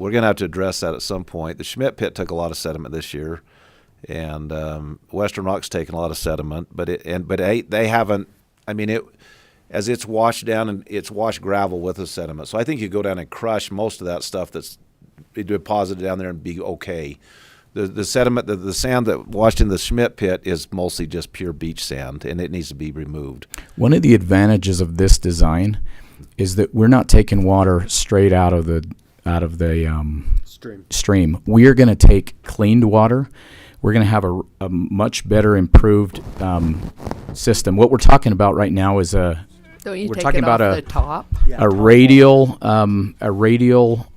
we're going to have to address that at some point. The Schmidt pit took a lot of sediment this year, and um, Western Rock's taken a lot of sediment, but it and but they they haven't. I mean it. As it's washed down and it's washed gravel with the sediment, so I think you go down and crush most of that stuff that's deposited down there and be okay. The the sediment, the, the sand that washed in the Schmidt pit is mostly just pure beach sand, and it needs to be removed. One of the advantages of this design is that we're not taking water straight out of the out of the um, Stream. stream. We are going to take cleaned water. We're going to have a, a much better improved um, system. What we're talking about right now is a Don't you We're take talking it about off a- the top? a radial um, a radial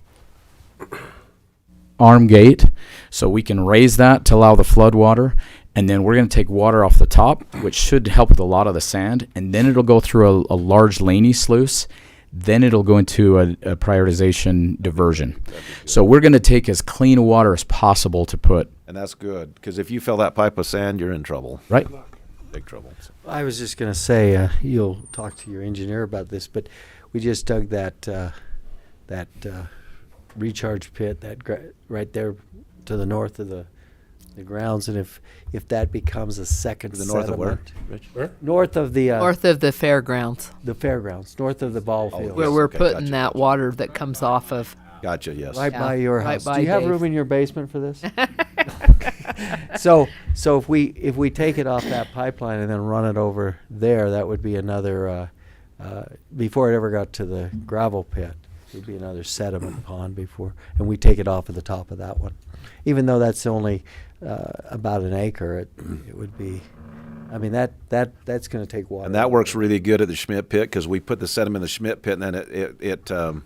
arm gate, so we can raise that to allow the flood water, and then we're going to take water off the top, which should help with a lot of the sand, and then it'll go through a, a large laney sluice. Then it'll go into a, a prioritization diversion. So we're going to take as clean water as possible to put And that's good because if you fill that pipe with sand, you're in trouble, right. big trouble. So- I was just gonna say, uh, you'll talk to your engineer about this, but we just dug that, uh, that, uh, recharge pit, that gra- right there to the north of the, the grounds, and if, if that becomes a second To the north of where? sediment- Rich? North of the, uh, North of the fairgrounds, the fairgrounds, north of the ball field. where yes, we're okay, putting gotcha. that water that comes off of. Gotcha. Yes. Right Yeah, by your right house. by Do you have Dave's. room in your basement for this? so, so if we if we take it off that pipeline and then run it over there, that would be another. Uh, uh, before it ever got to the gravel pit, it would be another sediment pond before, and we take it off at the top of that one. Even though that's only uh, about an acre, it it would be. I mean that that that's going to take water. And that works really good at the Schmidt pit because we put the sediment in the Schmidt pit and then it, it, it, um,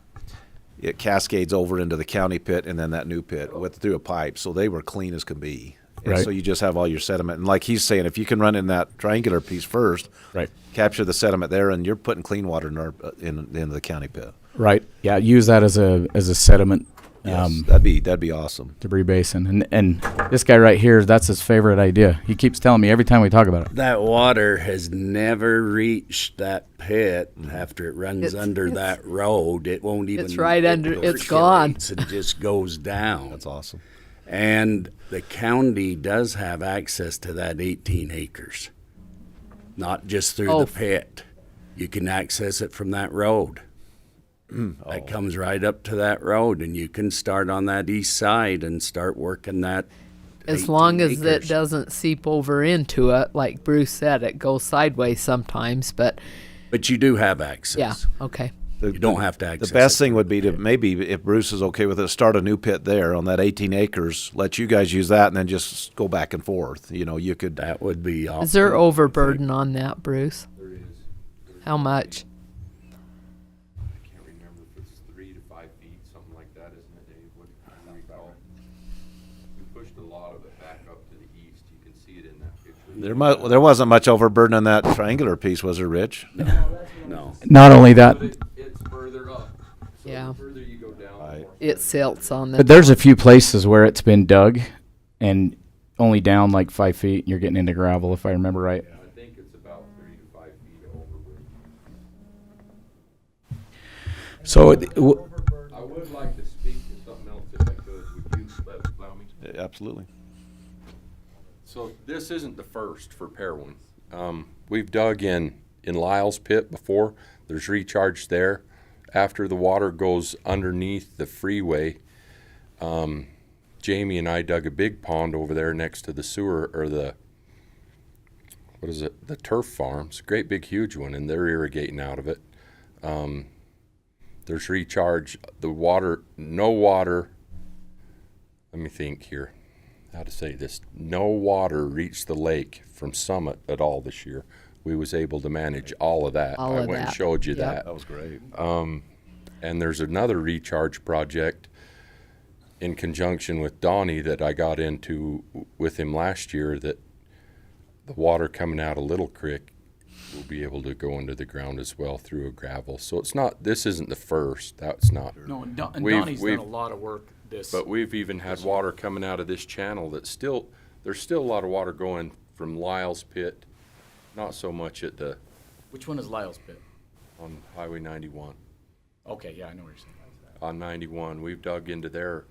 it cascades over into the county pit and then that new pit with, through a pipe. So they were clean as can be. And Right. so you just have all your sediment. And like he's saying, if you can run in that triangular piece first, Right. capture the sediment there and you're putting clean water in, our, uh, in, in the county pit. Right. Yeah. Use that as a as a sediment. Yes, Um, that'd be, that'd be awesome. debris basin. And and this guy right here, that's his favorite idea. He keeps telling me every time we talk about it. That water has never reached that pit after it runs Mm-hmm. It's- under it's- that road. It won't even. right it under- it's percolates gone. It just goes down. That's awesome. And the county does have access to that 18 acres, not just through Oh. the pit. You can access it from that road. Mm. Oh. That comes right up to that road, and you can start on that east side and start working that. As long 18 as it acres. doesn't seep over into it, like Bruce said, it goes sideways sometimes. But But you do have access. yeah, okay. You don't have to access. The best it. thing would be to maybe, if Bruce is okay with it, start a new pit there on that 18 acres, let you guys use that and then just go back and forth. You know, you could, That would be awesome. Is there overburden on that, Bruce? There is. How much? can't remember if it's three to five feet, something like that, isn't it, Dave? What do you recall? We pushed a lot of it back up to the east. You can see it in that picture. There mu- there wasn't much overburden on that triangular piece, was there, Rich? No. Not only that, But it, it's further up. So Yeah. the further you go down, the Right. more It silts on the. but there's a few places where it's been dug and only down like five feet and you're getting into gravel if I remember right. I think it's about three to five feet overburden. So it- w- I would like to speak to something else if I could. Would you let, allow me? Absolutely. So this isn't the first for Perwin. Um, we've dug in, in Lyle's pit before. There's recharge there. After the water goes underneath the freeway, um, Jamie and I dug a big pond over there next to the sewer or the, what is it? The turf farms, great big huge one, and they're irrigating out of it. Um, there's recharge, the water, no water. Let me think here how to say this no water reached the lake from summit at all this year we was able to manage all of that All i of went that. and showed you Yep. that Um, was great. and there's another recharge project in conjunction with donnie that i got into w- with him last year that the water coming out of little creek will be able to go into the ground as well through a gravel so it's not this isn't the first that's not No, and, Don, and We've- Donnie's we've- done a lot of work this. But we've even had water coming out of this channel that's still, there's still a lot of water going from Lyle's pit, not so much at the, which one is Lyle's pit? on Highway ninety-one. Okay, yeah, I know what you're saying. on ninety-one. We've dug into their